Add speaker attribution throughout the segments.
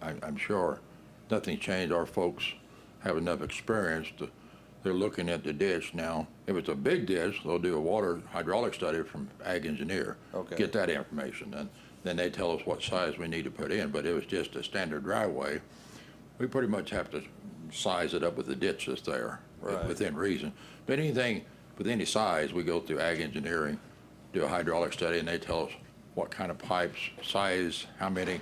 Speaker 1: I'm sure. Nothing changed. Our folks have enough experience to, they're looking at the ditch now. If it's a big ditch, they'll do a water hydraulic study from ag engineer.
Speaker 2: Okay.
Speaker 1: Get that information, and then they tell us what size we need to put in, but it was just a standard driveway. We pretty much have to size it up with the ditch that's there.
Speaker 2: Right.
Speaker 1: Within reason. But anything with any size, we go through ag engineering, do a hydraulic study, and they tell us what kind of pipes, size, how many.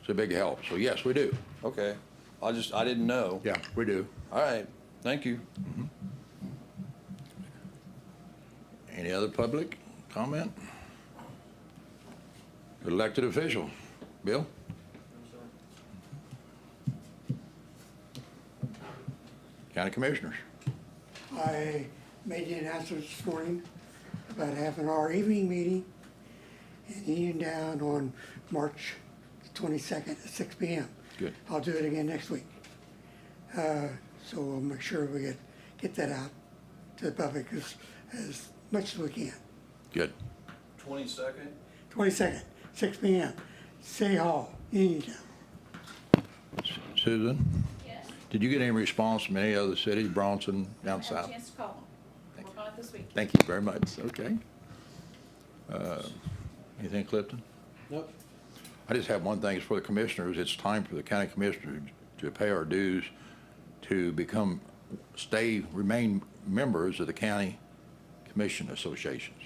Speaker 1: It's a big help. So yes, we do.
Speaker 2: Okay, I just, I didn't know.
Speaker 1: Yeah, we do.
Speaker 2: All right, thank you.
Speaker 1: Any other public comment? Elected official, Bill? County commissioners,
Speaker 3: I made the announcement this morning about having our evening meeting in Uniontown on March twenty-second at six P M.
Speaker 1: Good.
Speaker 3: I'll do it again next week. Uh, so we'll make sure we get, get that out to the public as, as much as we can.
Speaker 1: good.
Speaker 2: Twenty-second?
Speaker 3: Twenty-second, six P M, City Hall, Uniontown.
Speaker 1: Susan,
Speaker 4: Yes,
Speaker 1: did you get any response from any other cities, Bronson,
Speaker 4: I
Speaker 1: down
Speaker 4: had
Speaker 1: south?
Speaker 4: a chance to call them. We're going this week.
Speaker 1: Thank you very much, okay. Uh, Anything, Clifton?
Speaker 2: Nope.
Speaker 1: I just have one thing, it's for the commissioners, it's time for the county commissioners to pay our dues to become, stay, remain members of the county commission associations.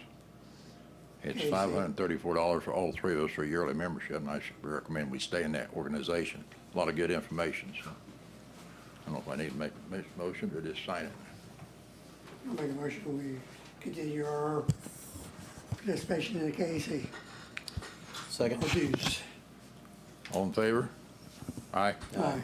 Speaker 1: It's
Speaker 3: Okay, so-
Speaker 1: five hundred and thirty-four dollars for all three of us for yearly membership, and I should recommend we stay in that organization. A lot of good information, so. I don't know if I need to make a motion or just sign it.
Speaker 3: I'll make a motion, we continue our participation in the K A C,
Speaker 2: Second.
Speaker 3: our dues.
Speaker 1: All in favor? Aye.
Speaker 3: Aye.